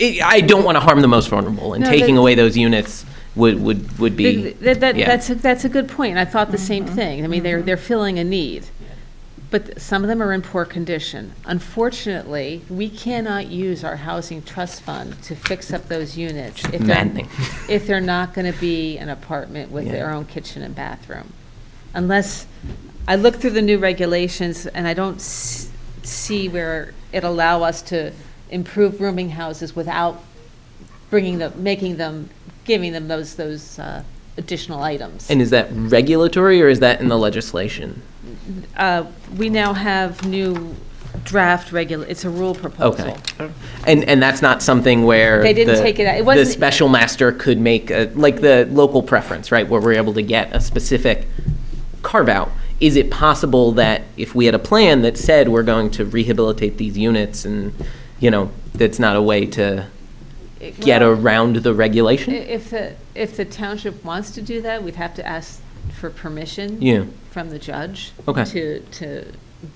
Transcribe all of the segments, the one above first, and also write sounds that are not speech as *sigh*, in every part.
I I don't want to harm the most vulnerable, and No, taking that- away those units would, would, would be. That, that, yeah. that's, a- that's a good point, I thought the same thing, I mean, they're, they're filling a need. But some of them are in poor condition. Unfortunately, we cannot use our housing trust fund to fix up those units if they're, maddening. if they're not gonna be an apartment with their Yeah. own kitchen and bathroom. Unless, I look through the new regulations and I don't s- see where it allow us to improve rooming houses without bringing them, making them, giving them those, those uh, additional items. And is that regulatory or is that in the legislation? Uh, We now have new draft regula, it's a rule Okay. proposal. And, and that's not something where. They didn't the- take it out. It The wasn't- special master could make, a- like the local preference, right, where we're able to get a specific carve-out. Is it possible that if we had a plan that said we're going to rehabilitate these units and, you know, that's not a way to get Well, around the i- regulation? If the, if the township wants to do that, we'd have to ask for permission. Yeah. From the judge. Okay. To, to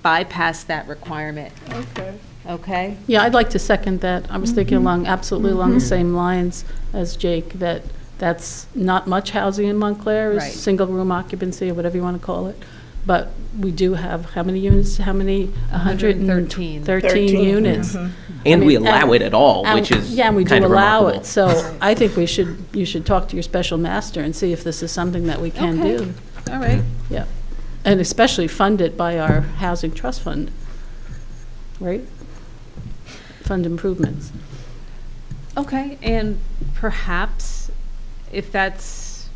bypass that requirement, Okay. okay? Yeah, I'd like to second that. I was thinking along, absolutely along the same lines as Jake, that that's not much housing in Montclair, Right. is single-room occupancy, or whatever you want to call it. But we do have, how many units, how many? A hundred and 113. Thirteen units. And I we mean, allow it and- at all, And- which is Yeah, and we do kind of allow remarkable. it, so I think we should, you should talk to your special master and see if this is something that we can Okay. do. All right. Yeah, and especially funded by our housing trust fund, right? Fund improvements. Okay, and perhaps if that's,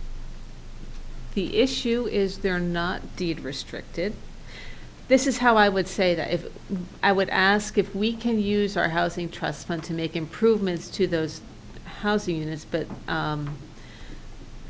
the issue is they're not deed restricted. This is how I would say that, if, I would ask if we can use our housing trust fund to make improvements to those housing units, but um,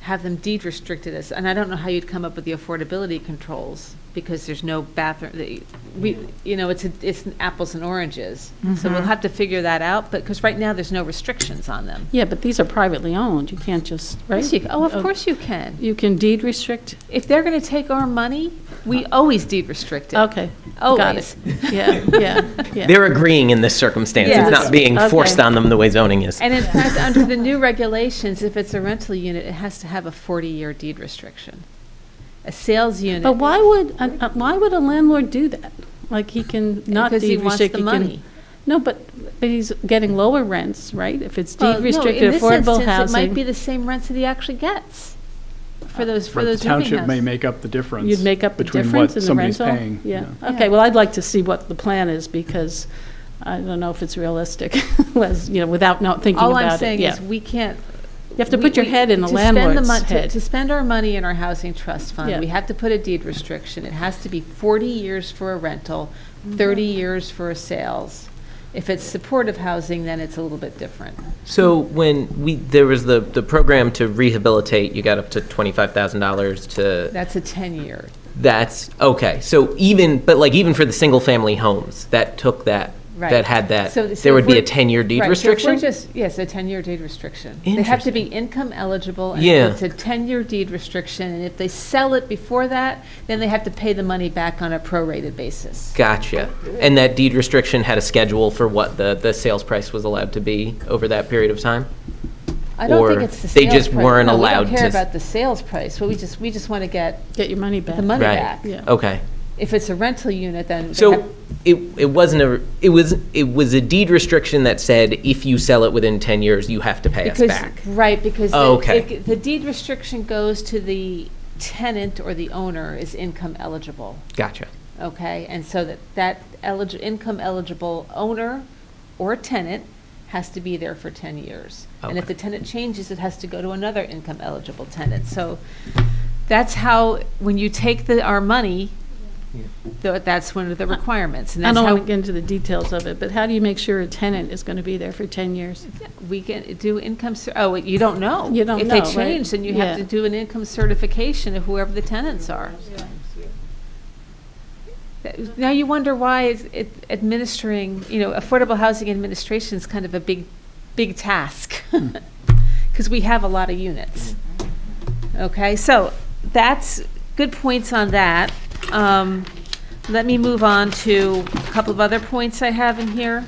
have them deed restricted as, and I don't know how you'd come up with the affordability controls, because there's no bathroom, the- we, you know, it's, a- it's apples and oranges. So we'll have to figure that out, but, because right now, there's no restrictions on them. Yeah, but these are privately owned, you can't just, right? Yes, you- Oh, of course you can. You can deed restrict? If they're going to take our money, we always deed restrict it. Okay, got Always. it. Yeah, yeah, yeah. They're agreeing in this circumstance. It's Yes. not being Okay. forced on them the way zoning is. And in fact, under the new regulations, if it's a rental unit, it has to have a 40-year deed restriction. A sales unit. But why would, uh, uh, why would a landlord do that? Like, he can not Because he deed wants restrict. the he can- money. No, but, but he's getting lower rents, right? If it's Well, deed no, restricted, In affordable this instance, it might be housing, the same rents that he actually gets for those, for Uh, But the those rooming township may houses. make up the difference. you'd make up the difference in the Between what somebody's rental? paying. you know. Yeah, okay, Yeah. well, I'd like to see what the plan is, because I don't know if it's realistic, *laughs* was, you know, without not thinking All about it, I'm saying yeah. is, we can't. You have to we- put your we- head in the to spend the landlord's mon- to- head. To spend our money in our housing trust fund, Yeah. we have to put a deed restriction. It has to be 40 years for a rental, Mm-hmm. 30 years for a sales. If it's supportive housing, then it's a little bit different. *laughs* So when we, there was the, the program to rehabilitate, you got up to $25,000 to, That's a 10-year. that's, okay. So even, but like even for the single-family homes, that took that, Right. that had that, So- so there if would be we're- a 10-year deed Right, so if we're restriction? just- Yes, a 10-year deed restriction. They have to be income eligible. and Yeah. It's a 10-year deed restriction, and if they sell it before that, then they have to pay the money back on a prorated basis. Gotcha. And that deed restriction had a schedule for what the, the sales price was allowed to be over that period of time? I don't Or think it's the sales they price. just weren't No, allowed We don't to care s- Mm. about the sales price, Well, we just, we just want to get Get your money back. the money Right. back. Yeah. Okay. If it's a rental unit, then. they have- So it, it wasn't a, it was, it was a deed restriction that said if you sell it within 10 years, you have to pay us because- back. Right, because. Oh, the- okay. it- The deed restriction goes to the tenant or the owner is income eligible. Gotcha. okay? And so that, that eligible, income eligible owner or tenant has to be there for 10 years. And if Okay. the tenant changes, it has to go to another income eligible tenant. So that's how, when you take the, our money, tho- that's one of the requirements. And I that's don't how want to get into the details of it, but how do you make sure a tenant is going to be there for 10 years? we can do income, cer- oh, wait, you don't know. You don't If know, they right? change, then you have to Yeah. do an income certification of whoever the tenants are. That- Now you wonder why is it administering, you know, affordable housing administration is kind of a big, big task. Hmm. *laughs* Because we have a lot of units. Okay, so that's, good points on that. Um, Let me move on to a couple of other points I have in here.